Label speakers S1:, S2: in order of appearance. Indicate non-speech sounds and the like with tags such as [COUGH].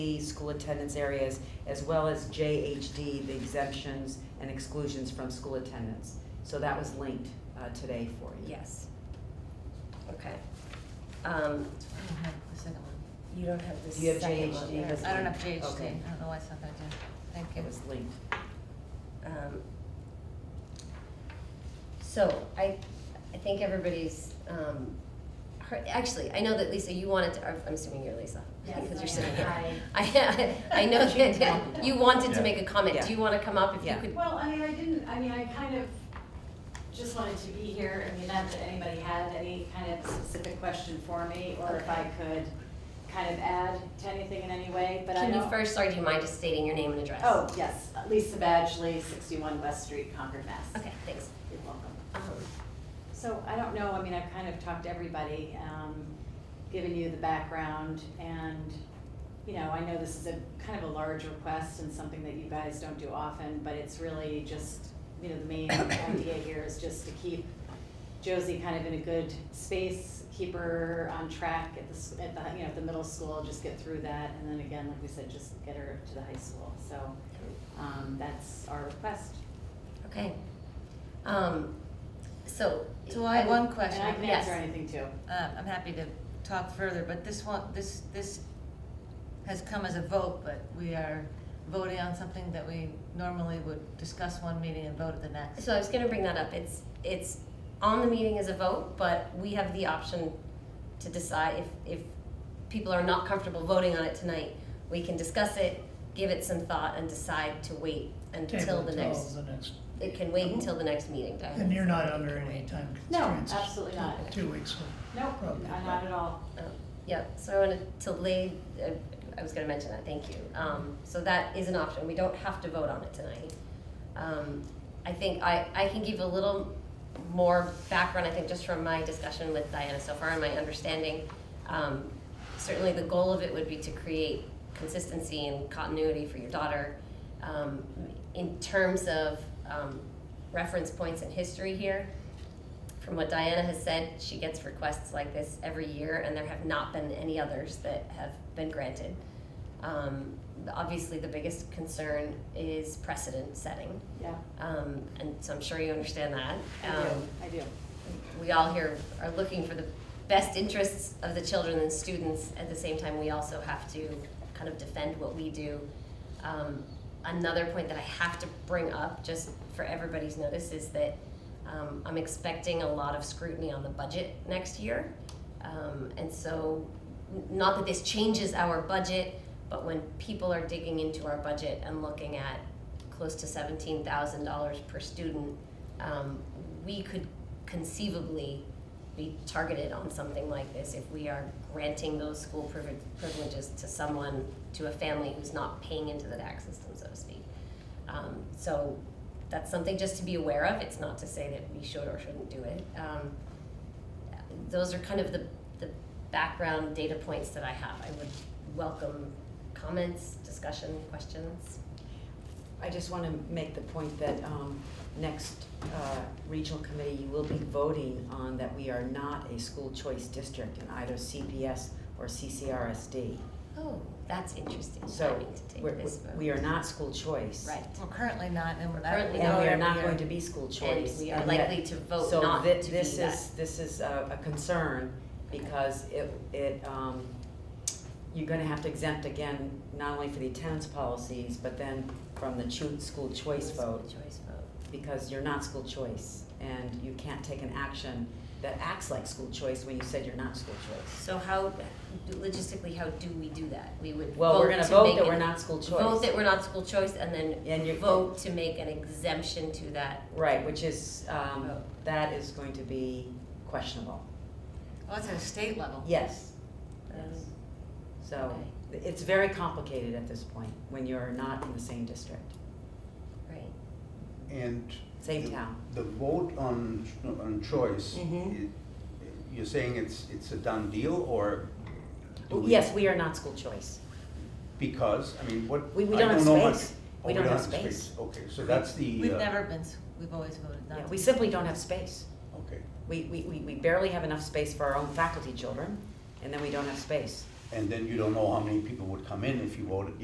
S1: the school attendance areas, as well as JHD, the exemptions and exclusions from school attendance. So that was linked uh, today for you.
S2: Yes. Okay. Um,
S3: I don't have the second one.
S2: you don't have the
S1: Do you have
S2: second one
S1: JHD?
S2: there.
S3: I don't have
S1: Okay.
S3: JHD, I don't know why it's not gonna do, thank you.
S1: It was linked.
S2: Um, So I, I think everybody's, um, heard, actually, I know that Lisa, you wanted to, I'm assuming you're Lisa,
S4: Yes,
S2: because
S4: I
S2: you're sitting
S4: am.
S2: here.
S4: Hi.
S2: I, [LAUGHS] I
S4: [LAUGHS]
S2: know that you wanted to
S5: Yeah.
S2: make a comment,
S1: Yeah.
S2: do you wanna come up if you
S1: Yeah.
S2: could?
S4: Well, I mean, I didn't, I mean, I kind of just wanted to be here, I mean, not that anybody had any kind of specific question for me, or if I could kind of add to anything in any way, but I
S2: Can you
S4: know-
S2: first, sorry, do you mind just stating your name and address?
S4: Oh, yes, Lisa Badgley, sixty-one West Street, Concord, Mass.
S2: Okay, thanks.
S4: You're welcome.
S2: Um,
S4: So I don't know, I mean, I've kind of talked to everybody, um, given you the background and, you know, I know this is a kind of a large request and something that you guys don't do often, but it's really just, you know, the main idea here is just to keep Josie kind of in a good space, keep her on track at the, s- at the, you know, at the middle school, just get through that. And then again, like we said, just get her to the high school. So, um, that's our request.
S2: Okay. Um, so.
S3: So I have one
S4: And I
S3: question,
S4: can
S2: Yes.
S4: answer anything too.
S3: uh, I'm happy to talk further, but this one, this, this has come as a vote, but we are voting on something that we normally would discuss one meeting and vote at the next.
S2: So I was gonna bring that up, it's, it's on the meeting as a vote, but we have the option to decide if, if people are not comfortable voting on it tonight, we can discuss it, give it some thought, and decide to wait until
S6: Table
S2: the
S6: till
S2: next,
S6: the next-
S2: it can wait until the next meeting, Diane.
S6: And you're not under any time
S4: No,
S6: constraints?
S4: absolutely not.
S6: Two weeks, so
S4: Nope,
S6: Probably.
S4: Uh, not at all.
S2: Oh, Yeah, so I wanted to lay, I- I was gonna mention that, thank you. Um, so that is an option, we don't have to vote on it tonight. Um, I think I, I can give a little more background, I think, just from my discussion with Diana so far and my understanding. Um, certainly the goal of it would be to create consistency and continuity for your daughter. Um, in terms of, um, reference points and history here, from what Diana has said, she gets requests like this every year, and there have not been any others that have been granted. Um, obviously, the biggest concern is precedent setting,
S4: Yeah,
S2: um, and so I'm sure you understand that.
S4: I
S2: Um,
S4: do, I do.
S2: we all here are looking for the best interests of the children and students. At the same time, we also have to kind of defend what we do. Um, another point that I have to bring up, just for everybody's notice, is that um, I'm expecting a lot of scrutiny on the budget next year. Um, and so, n- not that this changes our budget, but when people are digging into our budget and looking at close to seventeen thousand dollars per student, um, we could conceivably be targeted on something like this if we are granting those school privi- privileges to someone, to a family who's not paying into the tax system, so to speak. Um, so that's something just to be aware of. It's not to say that we should or shouldn't do it. Um, those are kind of the, the background data points that I have. I would welcome comments, discussion, questions.
S1: I just want to make the point that um, next uh, regional committee, you will be voting on that we are not a school choice district in either CPS or CCRSD.
S2: Oh, that's interesting. I
S1: So
S2: need to take
S1: we're-
S2: this vote.
S1: we are not school choice.
S2: Right.
S3: We're currently not, and we're not.
S2: Currently
S1: And we
S3: vote
S1: are
S3: every
S1: not
S3: year.
S1: going to be school
S2: And
S1: choice.
S2: we are
S1: yet-
S2: likely to vote not to
S1: So thi-
S2: be
S1: this
S2: that.
S1: is, this is a a concern because it, it, um, you're gonna have to exempt again, not only for the attendance policies, but then from the cho- school choice vote,
S2: Choice vote.
S1: because you're not school choice and you can't take an action that acts like school choice when you said you're not school choice.
S2: So how, logistically, how do we do that? We would
S1: Well, we're gonna
S2: to
S1: vote
S2: make
S1: that
S2: an-
S1: we're not school
S2: Vote
S1: choice.
S2: that we're not school choice and then
S1: And you
S2: vote to make an exemption to that.
S1: Right, which is, um,
S2: Vote.
S1: that is going to be questionable.
S3: Well, Oh, it's at a state level.
S1: Yes.
S2: Um,
S1: So it's very complicated at this point when you're not in the same district,
S2: Right.
S5: And
S1: same
S5: the-
S1: town.
S5: The vote on, on choice,
S1: Mhm.
S5: i- you're saying it's, it's a done deal or? do we-
S1: Yes, we are not school choice.
S5: Because, I mean, what?
S1: We- we
S5: I
S1: don't have
S5: know much-
S1: space.
S5: Oh,
S1: We don't have space.
S5: Okay, so that's the.
S3: We've
S5: uh,
S3: never been, s- we've always voted not
S1: Yeah,
S3: to.
S1: We
S3: be.
S1: simply don't have space.
S5: Okay,
S1: We, we, we we barely have enough space for our own faculty children, and then we don't have space.
S5: and then you don't know how many people would come in if you voted,